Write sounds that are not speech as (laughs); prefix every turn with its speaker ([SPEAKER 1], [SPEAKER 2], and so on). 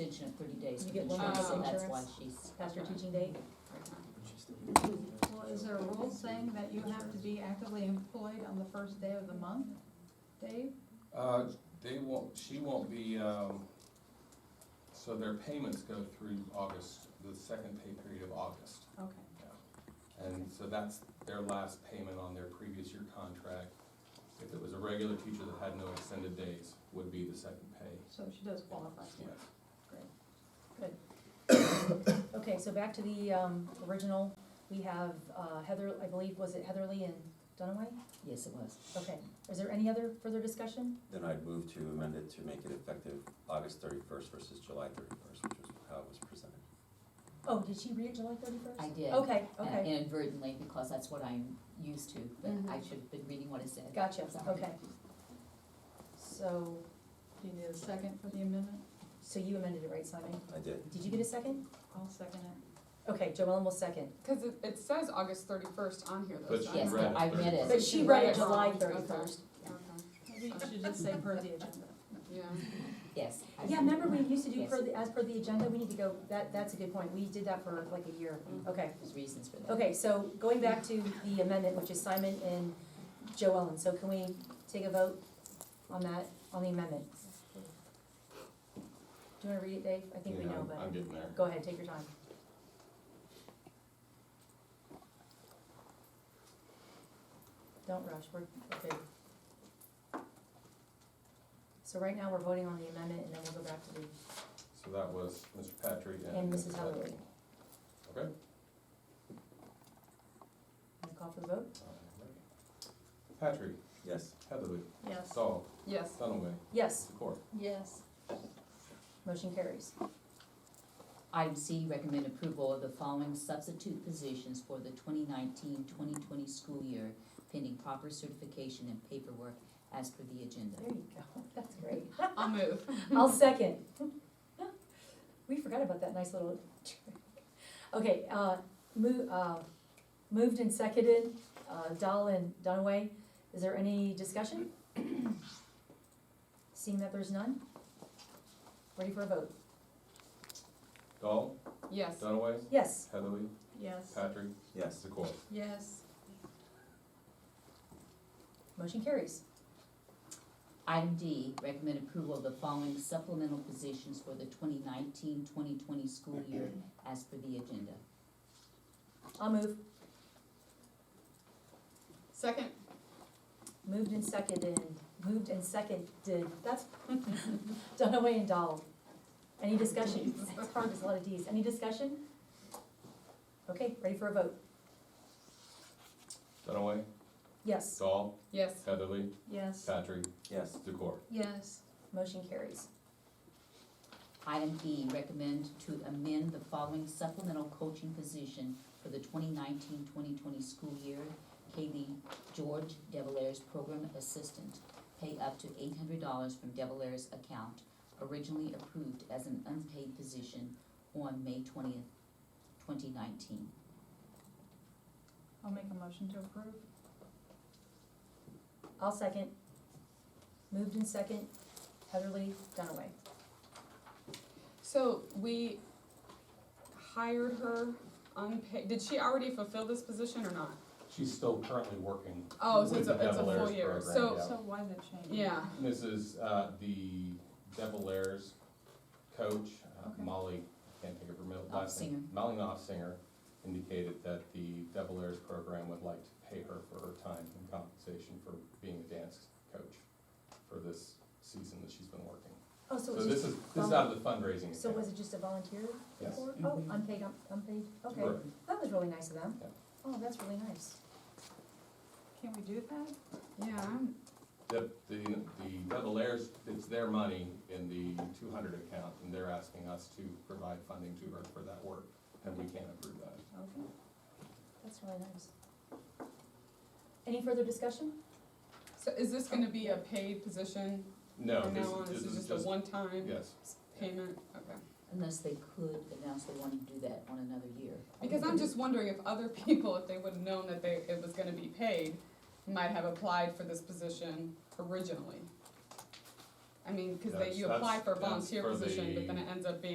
[SPEAKER 1] and thirty days to
[SPEAKER 2] You get one
[SPEAKER 1] insurance,
[SPEAKER 2] month's
[SPEAKER 1] so that's why
[SPEAKER 2] insurance
[SPEAKER 1] she's.
[SPEAKER 2] Past your teaching date?
[SPEAKER 3] Well, is there a rule saying that you have to be actively employed on the first day of the month, Dave?
[SPEAKER 4] Uh, they won't, she won't be, um, so their payments go through August, the second pay period of August.
[SPEAKER 3] Okay.
[SPEAKER 4] And so that's their last payment on their previous year contract. If it was a regular teacher that had no extended days, would be the second pay.
[SPEAKER 3] So she does qualify.
[SPEAKER 4] Yes.
[SPEAKER 2] Okay, so back to the, um, original, we have uh, Heather, I believe, was it Heatherly and Dunaway?
[SPEAKER 1] Yes, it was.
[SPEAKER 2] Okay, is there any other further discussion?
[SPEAKER 5] Then I'd move to amend it to make it effective August thirty-first versus July thirty-first, which was how it was presented.
[SPEAKER 2] Oh, did she read it July thirty-first?
[SPEAKER 1] I did.
[SPEAKER 2] Okay,
[SPEAKER 1] uh,
[SPEAKER 2] okay,
[SPEAKER 1] Inadvertently, because that's what I'm used to, but
[SPEAKER 2] Mhm.
[SPEAKER 1] I should have been reading what it said.
[SPEAKER 2] gotcha,
[SPEAKER 1] Sorry.
[SPEAKER 2] okay. So,
[SPEAKER 3] Do you need a second for the amendment?
[SPEAKER 2] so you amended it, right, Simon?
[SPEAKER 5] I did.
[SPEAKER 2] Did you get a second?
[SPEAKER 3] I'll second it.
[SPEAKER 2] Okay, Joellen will second.
[SPEAKER 6] Because it, it says August thirty-first on here though.
[SPEAKER 4] But
[SPEAKER 6] so-
[SPEAKER 4] she
[SPEAKER 1] Yes,
[SPEAKER 4] read
[SPEAKER 1] I read it.
[SPEAKER 2] But she read it July
[SPEAKER 6] Okay.
[SPEAKER 2] thirty-first.
[SPEAKER 6] Okay,
[SPEAKER 3] Maybe you should just say per the agenda.
[SPEAKER 6] yeah.
[SPEAKER 1] Yes. I-
[SPEAKER 2] Yeah, remember we used to do
[SPEAKER 1] Yes.
[SPEAKER 2] per, the- as per the agenda, we need to go, that, that's a good point, we did that for like a year, okay.
[SPEAKER 1] There's reasons for that.
[SPEAKER 2] Okay, so going back to the amendment, which is Simon and Joe Ellen, so can we take a vote on that, on the amendment? Do you wanna read it, Dave? I think we know,
[SPEAKER 4] I'm- I'm
[SPEAKER 2] but,
[SPEAKER 4] getting there.
[SPEAKER 2] go ahead, take your time. Don't rush, we're, we're good. So right now, we're voting on the amendment, and then we'll go back to the,
[SPEAKER 4] So that was Mr. Patrick and.
[SPEAKER 2] and Mrs. Heatherly.
[SPEAKER 4] Okay.
[SPEAKER 2] Wanna call for the vote?
[SPEAKER 4] Alright. Patrick,
[SPEAKER 5] Yes.
[SPEAKER 4] Heatherly,
[SPEAKER 3] Yes.
[SPEAKER 4] Dahl,
[SPEAKER 6] Yes,
[SPEAKER 4] Dunaway,
[SPEAKER 2] Yes,
[SPEAKER 4] Secor.
[SPEAKER 3] Yes.
[SPEAKER 2] motion carries.
[SPEAKER 1] Item C, recommend approval of the following substitute positions for the 2019-2020 school year pending proper certification and paperwork as per the agenda.
[SPEAKER 2] There you go, (laughs) that's great.
[SPEAKER 6] I'll move.
[SPEAKER 3] (laughs)
[SPEAKER 2] I'll second. We forgot about that nice little trick. Okay, uh, move, uh, moved and seconded, uh, Dahl and Dunaway. Is there any
[SPEAKER 3] (clears throat)
[SPEAKER 2] discussion? Seeing that there's none? Ready for a vote?
[SPEAKER 4] Dahl,
[SPEAKER 6] Yes.
[SPEAKER 4] Dunaway,
[SPEAKER 2] Yes,
[SPEAKER 4] Heatherly,
[SPEAKER 3] Yes.
[SPEAKER 4] Patrick,
[SPEAKER 5] Yes.
[SPEAKER 4] Secor.
[SPEAKER 3] Yes.
[SPEAKER 2] motion carries.
[SPEAKER 1] Item D, recommend approval of the following supplemental positions for the 2019-2020 school year as per the agenda.
[SPEAKER 2] I'll move.
[SPEAKER 6] Second,
[SPEAKER 2] Moved and seconded, moved and seconded, that's (laughs) Dunaway and Dahl. Any discussion? It's hard, there's a lot of Ds. Any discussion? Okay, ready for a vote?
[SPEAKER 4] Dunaway,
[SPEAKER 2] Yes,
[SPEAKER 4] Dahl,
[SPEAKER 6] yes.
[SPEAKER 4] Heatherly,
[SPEAKER 3] Yes.
[SPEAKER 4] Patrick,
[SPEAKER 5] Yes.
[SPEAKER 4] Secor.
[SPEAKER 3] Yes.
[SPEAKER 2] motion carries.
[SPEAKER 1] Item E, recommend to amend the following supplemental coaching position for the 2019-2020 school year. Katie George Devilairs Program Assistant, pay up to eight hundred dollars from Devilairs account, originally approved as an unpaid position on May twentieth, twenty nineteen.
[SPEAKER 3] I'll make a motion to approve.
[SPEAKER 2] I'll second. Moved in second, Heatherly Dunaway.
[SPEAKER 6] So we hired her unpaid, did she already fulfill this position or not?
[SPEAKER 4] She's still currently working.
[SPEAKER 6] Oh, so
[SPEAKER 4] With
[SPEAKER 6] it's a,
[SPEAKER 4] the
[SPEAKER 6] it's a
[SPEAKER 4] Devil Airs
[SPEAKER 6] full year,
[SPEAKER 4] program,
[SPEAKER 6] so,
[SPEAKER 4] Yeah.
[SPEAKER 3] So why the change?
[SPEAKER 6] yeah,
[SPEAKER 4] This is, uh, the Devil Airs coach, uh,
[SPEAKER 3] Okay.
[SPEAKER 4] Molly, I can't think of her middle last name. Molly Nofsinger indicated that the Devil Airs program would like to pay her for her time and compensation for being a dance coach for this season that she's been working.
[SPEAKER 2] Oh, so
[SPEAKER 4] So
[SPEAKER 2] it was just,
[SPEAKER 4] this is, this is out of the fundraising.
[SPEAKER 2] so was
[SPEAKER 4] account.
[SPEAKER 2] it just a volunteer?
[SPEAKER 4] Yes.
[SPEAKER 2] report?
[SPEAKER 3] Mm-hmm.
[SPEAKER 2] Oh,
[SPEAKER 1] Mhm.
[SPEAKER 2] unpaid, un- unpaid, okay.
[SPEAKER 4] Correct.
[SPEAKER 2] That was really nice of them.
[SPEAKER 4] Yeah.
[SPEAKER 2] Oh, that's really nice.
[SPEAKER 3] Can we do that?
[SPEAKER 6] yeah, I'm-
[SPEAKER 4] The, the, the Devil Airs, it's their money in the two hundred account, and they're asking us to provide funding to her for that work, and we can't approve that.
[SPEAKER 3] Okay.
[SPEAKER 2] That's really nice. Any further discussion?
[SPEAKER 6] so is this gonna be a paid position
[SPEAKER 4] No,
[SPEAKER 6] from
[SPEAKER 4] this
[SPEAKER 6] now on?
[SPEAKER 4] is, this is
[SPEAKER 6] a
[SPEAKER 4] just,
[SPEAKER 6] one-time
[SPEAKER 4] yes.
[SPEAKER 6] payment? Okay.
[SPEAKER 1] Unless they could announce they want to do that on another year.
[SPEAKER 6] Because I'm just wondering if other (laughs) people, if they would've known that they, it was gonna be paid, might have applied for this position originally. I mean, cause they,
[SPEAKER 4] That's-
[SPEAKER 6] you apply
[SPEAKER 4] that's-
[SPEAKER 6] for a
[SPEAKER 4] that's
[SPEAKER 6] volunteer
[SPEAKER 4] for
[SPEAKER 6] position, but then
[SPEAKER 4] the-
[SPEAKER 6] it ends up being